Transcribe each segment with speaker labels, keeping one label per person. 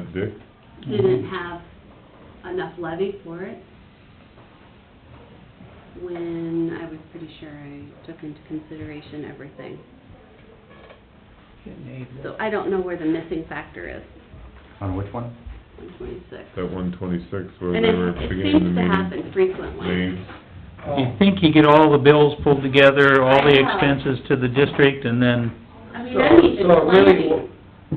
Speaker 1: Dick?
Speaker 2: didn't
Speaker 1: Mm-hmm.
Speaker 2: have enough levy for it. When I was pretty sure I took into consideration everything. So I don't know where the missing factor is,
Speaker 3: On which one?
Speaker 2: one twenty-six.
Speaker 1: That one twenty-six where
Speaker 2: And
Speaker 1: they were
Speaker 2: it, it
Speaker 1: beginning the
Speaker 2: seems to
Speaker 1: meeting?
Speaker 2: happen frequently.
Speaker 1: Names,
Speaker 4: You think you get all the bills pulled together, all the
Speaker 2: Yeah.
Speaker 4: expenses to the district, and then,
Speaker 2: I mean,
Speaker 5: So-
Speaker 2: I need to
Speaker 5: so it really
Speaker 2: planning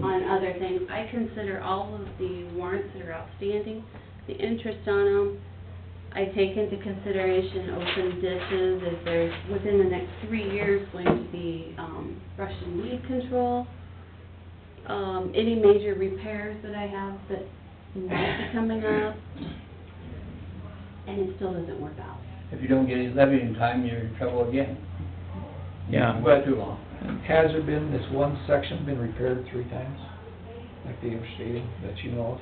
Speaker 2: on other things. I consider all of the warrants that are outstanding, the interest on them. I take into consideration open ditches, if there's, within the next three years, going to be, um, Russian weed control. Um, any major repairs that I have that might be coming up. And it still doesn't work out.
Speaker 5: If you don't get it levied in time, you're in trouble again.
Speaker 4: yeah.
Speaker 5: Way too long.
Speaker 6: Has there been, this one section been repaired three times, like they were stating, that you know of?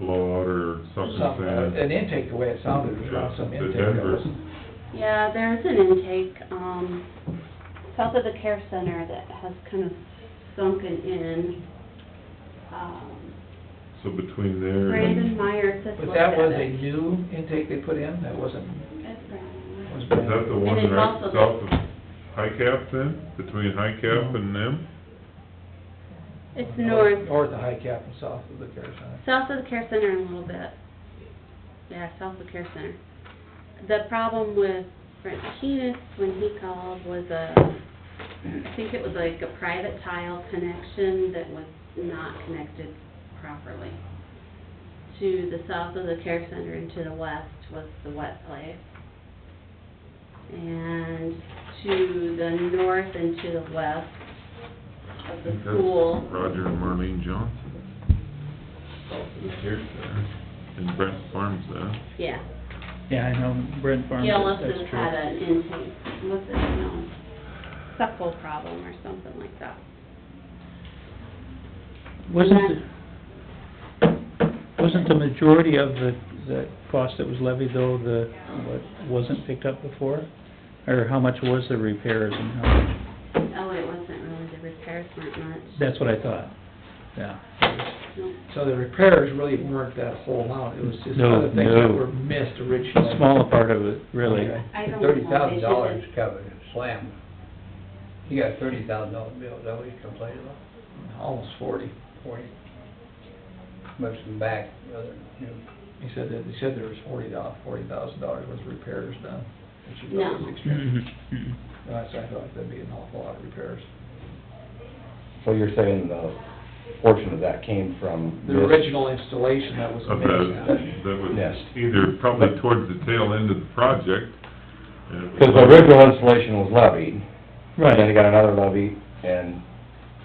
Speaker 1: blowout or something
Speaker 6: Some- uh, An
Speaker 1: sad.
Speaker 6: intake, the way it sounded, was around some
Speaker 1: The
Speaker 6: intake.
Speaker 1: Denver's.
Speaker 2: Yeah, there's an intake, um, south of the care center that has kind of sunken in. Um,
Speaker 1: So between there
Speaker 2: Brandon
Speaker 1: and,
Speaker 2: Meyer just
Speaker 6: But
Speaker 2: looked
Speaker 6: that
Speaker 2: at
Speaker 6: was a
Speaker 2: it.
Speaker 6: new intake they put in, that wasn't,
Speaker 2: That's Brandon Meyer.
Speaker 6: was
Speaker 1: is that the one
Speaker 2: it's
Speaker 1: right
Speaker 2: also the-
Speaker 1: south of High Cap then? Between High Cap and them?
Speaker 2: It's north,
Speaker 6: North of High Cap and south of the care center.
Speaker 2: south of the care center a little bit. Yeah, south of the care center. The problem with Francinus, when he called, was a, I think it was like a private tile connection that was not connected properly. To the south of the care center and to the west was the wet place. And to the north and to the west of
Speaker 1: I
Speaker 2: the
Speaker 1: think that's
Speaker 2: school
Speaker 1: Roger and Marlene Johnson. South of the Care Center. And Brent Farms there.
Speaker 2: Yeah,
Speaker 4: Yeah, I know, Brent Farms,
Speaker 2: Gillis
Speaker 4: that's
Speaker 2: has had
Speaker 4: true.
Speaker 2: an intake, what's it, no, suckle problem or something like that.
Speaker 4: Wasn't,
Speaker 2: And
Speaker 4: the- wasn't the majority of the, the cost that was levied, though, the, what wasn't picked up before? Or how much was the repairs and how much?
Speaker 2: Oh, it wasn't really, the repairs weren't much.
Speaker 4: That's what I thought, yeah.
Speaker 2: No.
Speaker 6: So the repairs really weren't that whole amount, it was just
Speaker 4: No,
Speaker 6: other things that
Speaker 4: no.
Speaker 6: were missed originally.
Speaker 4: A smaller part of it, really.
Speaker 6: Okay.
Speaker 2: I don't know.
Speaker 5: Thirty thousand
Speaker 2: They
Speaker 5: dollars
Speaker 2: should
Speaker 5: covered, slam. You got thirty thousand dollar bill, is that what you complained about?
Speaker 6: Almost forty.
Speaker 5: Forty? Must have been back, rather, you know.
Speaker 6: He said that, he said there was forty dollars, forty thousand dollars worth of repairs done, which you
Speaker 2: No.
Speaker 6: know is extreme.
Speaker 4: Mhm, mhm.
Speaker 6: That's, I thought that'd be an awful lot of repairs.
Speaker 3: So you're saying the portion of that came from?
Speaker 6: The
Speaker 3: this-
Speaker 6: original installation that was
Speaker 1: of that,
Speaker 6: made.
Speaker 1: that was
Speaker 3: Yes.
Speaker 1: either probably towards the tail end of the project. and it was
Speaker 3: Because the original installation was levied, and then they
Speaker 4: Right,
Speaker 3: got another levy, and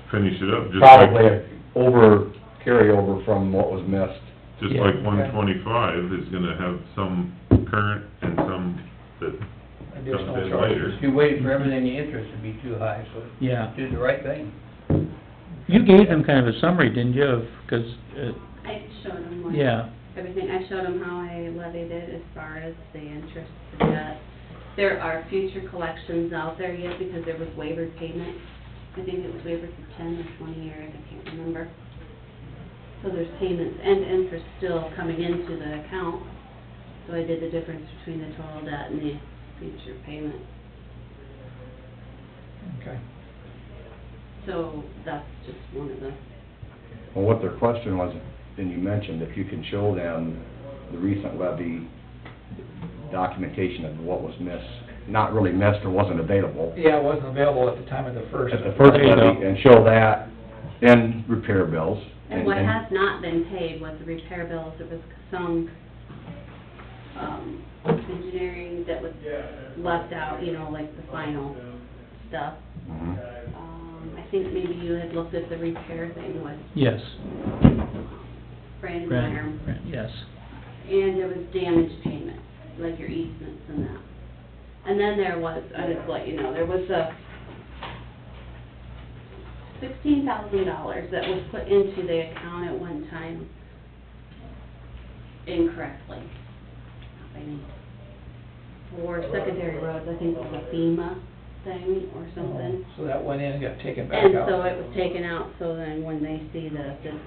Speaker 1: Finish it up, just
Speaker 3: probably
Speaker 1: like,
Speaker 3: a over, carryover from what was missed.
Speaker 1: just
Speaker 4: Yeah.
Speaker 1: like one twenty-five is gonna have some current and some that comes
Speaker 6: Additional
Speaker 1: in
Speaker 6: charges.
Speaker 1: later.
Speaker 5: You waited for everything, the interest would be too high, so
Speaker 4: yeah.
Speaker 5: did the right thing.
Speaker 4: You gave them kind of a summary, didn't you, of, 'cause, uh,
Speaker 2: I showed them like
Speaker 4: yeah,
Speaker 2: everything, I showed them how I levied it as far as the interest, the debt. There are future collections out there yet because there was waiver payment. I think it was waiver for ten or twenty years, I can't remember. So there's payments and interest still coming into the account. So I did the difference between the total debt and the future payment.
Speaker 6: Okay.
Speaker 2: So that's just one of the,
Speaker 3: Well, what their question was, and you mentioned, if you can show them the recent levy documentation of what was missed, not really missed or wasn't available
Speaker 6: Yeah, it wasn't available at the time of the first.
Speaker 3: at the first
Speaker 4: There you
Speaker 3: levy,
Speaker 4: go.
Speaker 3: and show that, and repair bills.
Speaker 2: and what has not been paid was the repair bills, it was some, um, engineering that was left out, you know, like the final stuff.
Speaker 3: Mhm.
Speaker 2: Um, I think maybe you had looked at the repair thing with um,
Speaker 4: yes,
Speaker 2: Brandon Meyer,
Speaker 4: Brent, Brent, yes.
Speaker 2: and there was damage payments, like your easements and that. And then there was, I just let you know, there was a sixteen thousand dollars that was put into the account at one time incorrectly. I mean, For secondary roads, I think it was a FEMA thing or
Speaker 6: Um,
Speaker 2: something.
Speaker 6: So that went in and got taken back
Speaker 2: And
Speaker 6: out.
Speaker 2: so it was taken out, so then when they see the, the